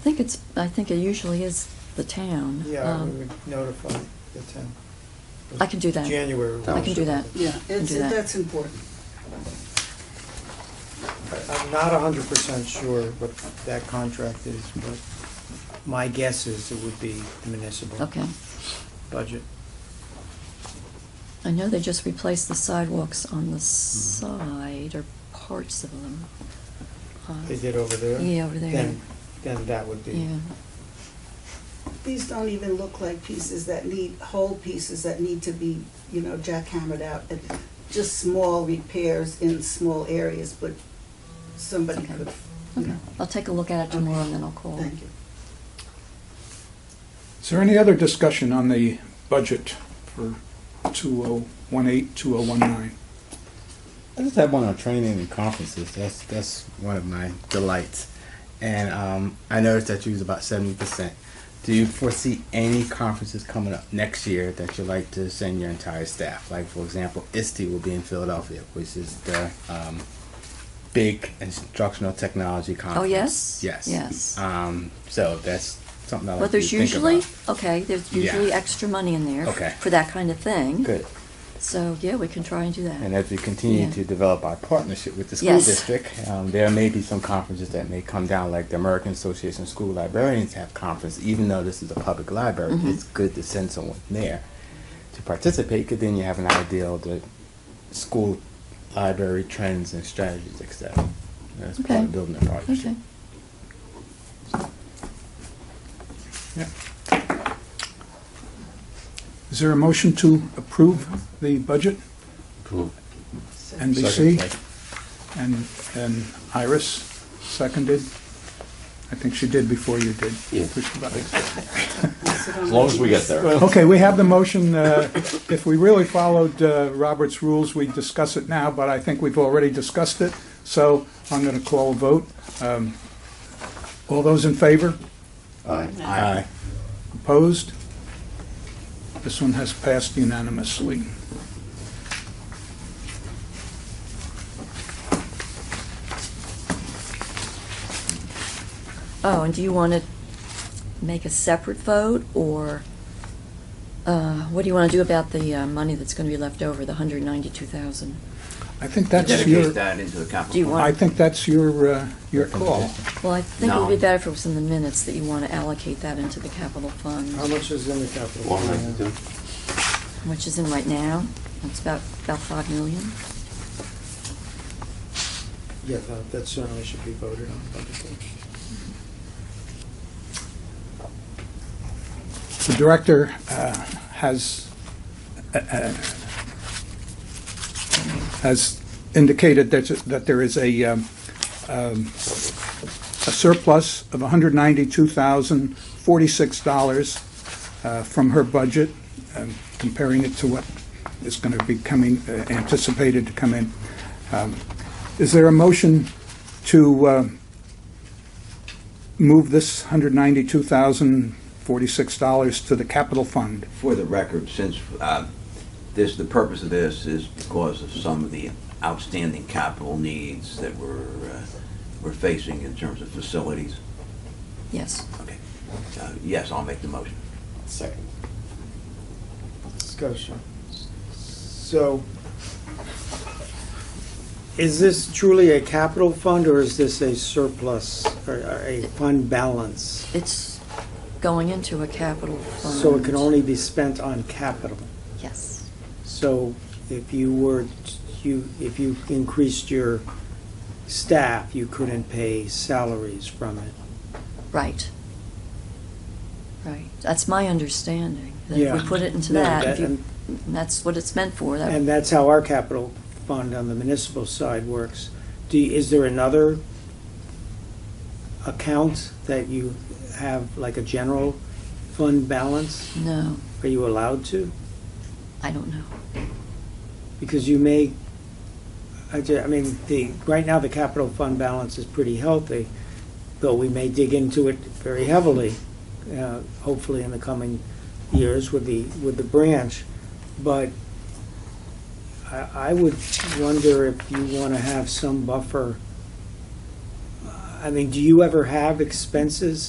think it's, I think it usually is the town. Yeah, we Um, would notify the town. I can do that. January. I can do that. Yeah, it's, do that. that's important. I- I'm not hundred percent sure what that contract is, but my guess is it would be the municipal Okay. budget. I know they just replaced the sidewalks on Mm-hmm. the side or parts of them. Uh, They did over there? Yeah, over there. Then, then that would be, Yeah, These don't even look like pieces that need, whole pieces that need to be, you know, jackhammered out. and Just small repairs in small areas, but somebody Okay. could, you okay. know, I'll take a look at it tomorrow and then I'll call. thank you. Is there any other discussion on the budget for 2018, 2019? I just have one on training and conferences. That's that's one of my delights, and um, I noticed that you was about seventy percent. Do you foresee any conferences coming up next year that you'd like to send your entire staff? Like for example, ISTE will be in Philadelphia, which is the um, big instructional technology conference. Oh, yes? Yes. Yes. Um, so that's something I like Well, there's you to think usually, about. okay, there's Yeah. usually extra money in there. Okay. For that kind of thing. good. So, yeah, we can try and do And that. as we continue Yeah. to develop our partnership with the school Yes. district, um, there may be some conferences that may come down, like the American Association of School Librarians have conference. Even though this is a public library, Mhm. it's good to send someone there to participate, because then you have an idea of the school library trends and strategies, etc. That's part Okay. of building a partnership. Okay. Is there a motion to approve the budget? NBC and, and Iris seconded? I think she did before you did. Yeah. Push the button. uh, As long as we get there. Okay, we have the motion. uh, If we really followed uh, Robert's rules, we'd discuss it now, but I think we've already discussed it, so I'm going to call a vote. Um, All those in favor? Aye. Opposed? This one has passed unanimously. Oh, and do you want to make a separate vote, or uh, what do you want to do about the uh, money that's going to be left over, the 192,000? I think that's your, Dedicate that into the Do you capital. want- I think that's your, uh, your call. Well, I think it would be No. better if it was in the minutes that you want to allocate that into the capital fund, how much is in the capital? One ninety-two. which is in right now. It's about, about 5 million. Yeah, that- that certainly should be voted on publicly. The director uh, has, uh, uh, has indicated that, that there is a, um, um, a surplus of $192,046 uh, from her budget, um, comparing it to what is going to be coming, uh, anticipated to come in. Um, Is there a motion to uh, move this $192,046 to the capital fund? For the record, since uh, this, the purpose of this is because of some of the outstanding capital needs that we're, uh, we're facing in terms of facilities. Yes. Okay. Uh, Yes, I'll make the motion. Second. Discussion. So, is this truly a capital fund, or is this a surplus, or or a fund balance? It's going into a capital fund. So it can only be spent on capital? Yes. So if you were, you, if you increased your staff, you couldn't pay salaries from it. Right. Right. That's my understanding. That if Yeah. we put it into No, that, that- if you- that's what it's meant for. That And that's how our capital fund on the municipal side works. Do, you- is there another account that you have, like a general fund balance? No, Are you allowed to? I don't know. Because you may, I ju- I mean, the, right now, the capital fund balance is pretty healthy, though we may dig into it very heavily, uh, hopefully in the coming years with the, with the branch. But I, I would wonder if you want to have some buffer. I mean, do you ever have expenses